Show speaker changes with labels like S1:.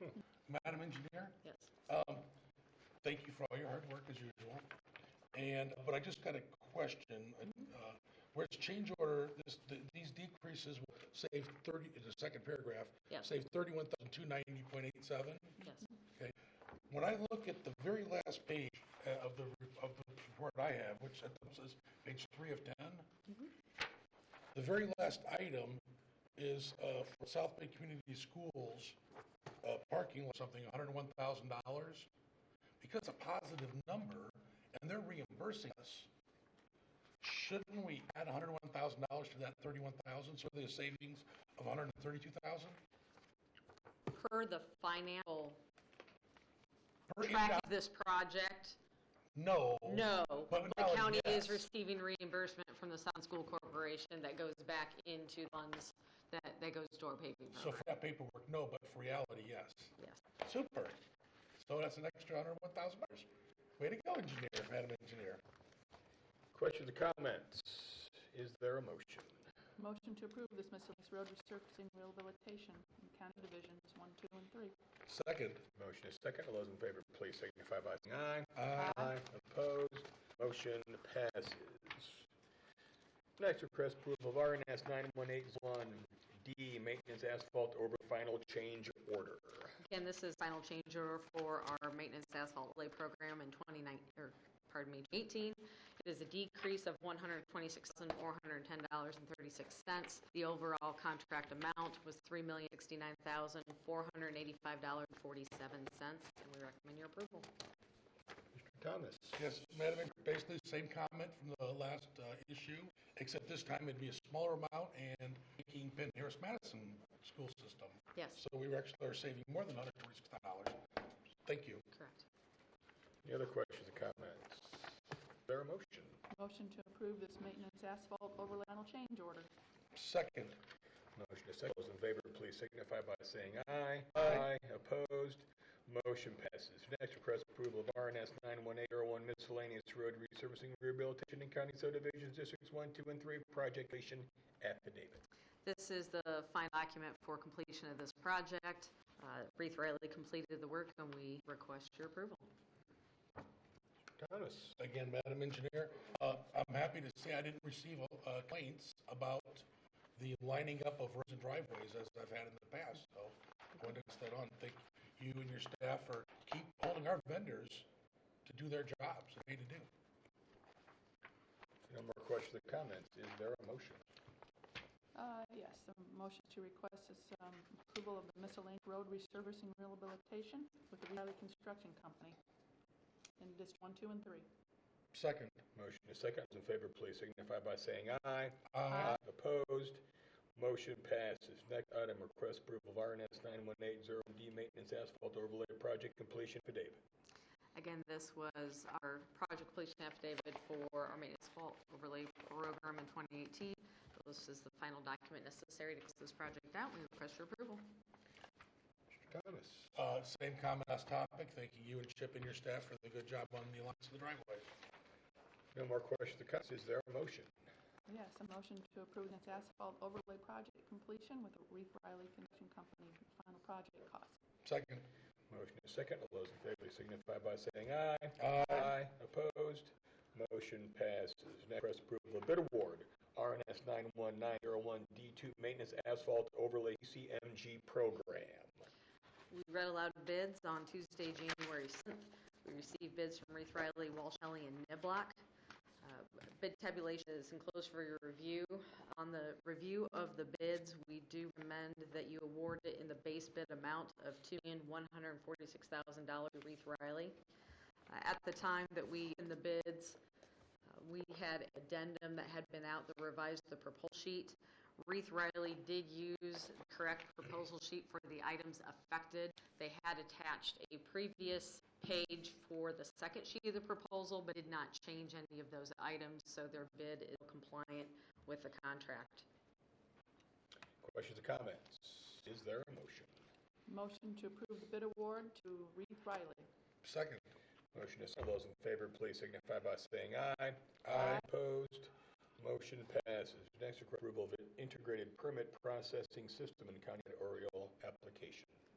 S1: Hmm. Madam Engineer, um,
S2: Yes.
S1: thank you for all your hard work as usual. And, but I just got a question. uh, Whereas change order, this, th- these decreases will save 30, in the second paragraph,
S2: Yeah.
S1: save 31,290.87.
S2: Yes.
S1: Okay. When I look at the very last page uh, of the, of the report I have, which at the- says page three of 10, the very last item is uh, for South Bay Community Schools, uh, parking or something, $101,000. Because it's a positive number and they're reimbursing us, shouldn't we add $101,000 to that 31,000, so there's a savings of 132,000?
S2: Per the financial
S1: Per
S2: track
S1: inbound-
S2: of this project,
S1: No.
S2: no.
S1: But
S2: The
S1: now,
S2: county
S1: yes.
S2: is receiving reimbursement from the Sun School Corporation that goes back into funds that, that goes to our paving
S1: So
S2: program.
S1: for that paperwork, no, but for reality, yes.
S2: Yes.
S1: Super. So that's an extra hundred and one thousand dollars. Way to go, engineer, madam engineer.
S3: Questions or comments? Is there a motion?
S4: Motion to approve this miscellaneous road resurfacing rehabilitation in County Divisions 1, 2, and 3.
S1: Second,
S3: Motion is second. All those in favor, please signify by saying
S1: Aye.
S3: aye. Aye. Opposed? Motion passes. Next, request approval of RNS 9181D Maintenance Asphalt Over Final Change Order.
S2: Again, this is final change order for our maintenance asphalt lay program in 29, or, pardon me, 18. It is a decrease of $126,410.36. The overall contract amount was $3,069,485.47, and we recommend your approval.
S3: Mr. Thomas?
S1: yes, madam, Engineer, basically same comment from the last uh, issue, except this time it'd be a smaller amount and making Penn Harris Madison school system.
S2: Yes,
S1: So we were actually are saving more than hundred and twenty-six dollars. Thank you.
S2: correct.
S3: Any other questions or comments? Is there a motion?
S4: Motion to approve this maintenance asphalt overlay final change order.
S1: Second,
S3: Motion is second. Those in favor, please signify by saying aye. Aye. Opposed? Motion passes. Next, request approval of RNS 91801 miscellaneous road resurfacing rehabilitation in county subdivisions districts 1, 2, and 3, project completion affidavit.
S2: This is the final document for completion of this project. Uh, Reeve Riley completed the work, and we request your approval.
S3: Thomas?
S1: again, Madam Engineer, uh, I'm happy to say I didn't receive uh, complaints about the lining up of roads and driveways as I've had in the past, so I wanted to pass that on. Thank you and your staff for keep holding our vendors to do their jobs that they need to do.
S3: No more questions or comments. Is there a motion?
S4: Uh, Yes, a motion to request this um, approval of the miscellaneous road resurfacing rehabilitation with the Riley Construction Company in District 1, 2, and 3.
S1: Second,
S3: Motion is second. Those in favor, please signify by saying aye.
S1: aye.
S3: Opposed? Motion passes. Next item, request approval of RNS 9180D maintenance asphalt overlay project completion affidavit.
S2: Again, this was our project completion affidavit for our maintenance fault overlay program in 2018. This is the final document necessary to close this project out. We request your approval.
S3: Mr. Thomas?
S1: Uh, Same comment as topic, thanking you and Chip and your staff for the good job on the lines of the driveway.
S3: No more questions or comments. Is there a motion?
S4: Yes, a motion to approve this asphalt overlay project completion with the Reeve Riley Construction Company final project cost.
S1: Second,
S3: Motion is second. All those in favor signify by saying aye.
S1: aye.
S3: Opposed? Motion passes. Next, request approval of bid award, RNS 91901D2 Maintenance Asphalt Overlay CMG Program.
S2: We read aloud bids on Tuesday, January 7th. We received bids from Reeve Riley, Walsh, Ellie, and Niblock. Uh, Bid tabulation is enclosed for your review. On the review of the bids, we do recommend that you award it in the base bid amount of $2,146,000 to Reeve Riley. Uh, At the time that we, in the bids, uh, we had addendum that had been out that revised the proposal sheet. Reeve Riley did use the correct proposal sheet for the items affected. They had attached a previous page for the second sheet of the proposal, but did not change any of those items, so their bid is compliant with the contract.
S3: Questions or comments? Is there a motion?
S4: Motion to approve the bid award to Reeve Riley.
S1: Second,
S3: Motion is second. All those in favor, please signify by saying aye.
S1: Aye.
S3: Opposed? Motion passes. Next, request approval of an integrated permit processing system in County of Oriole application.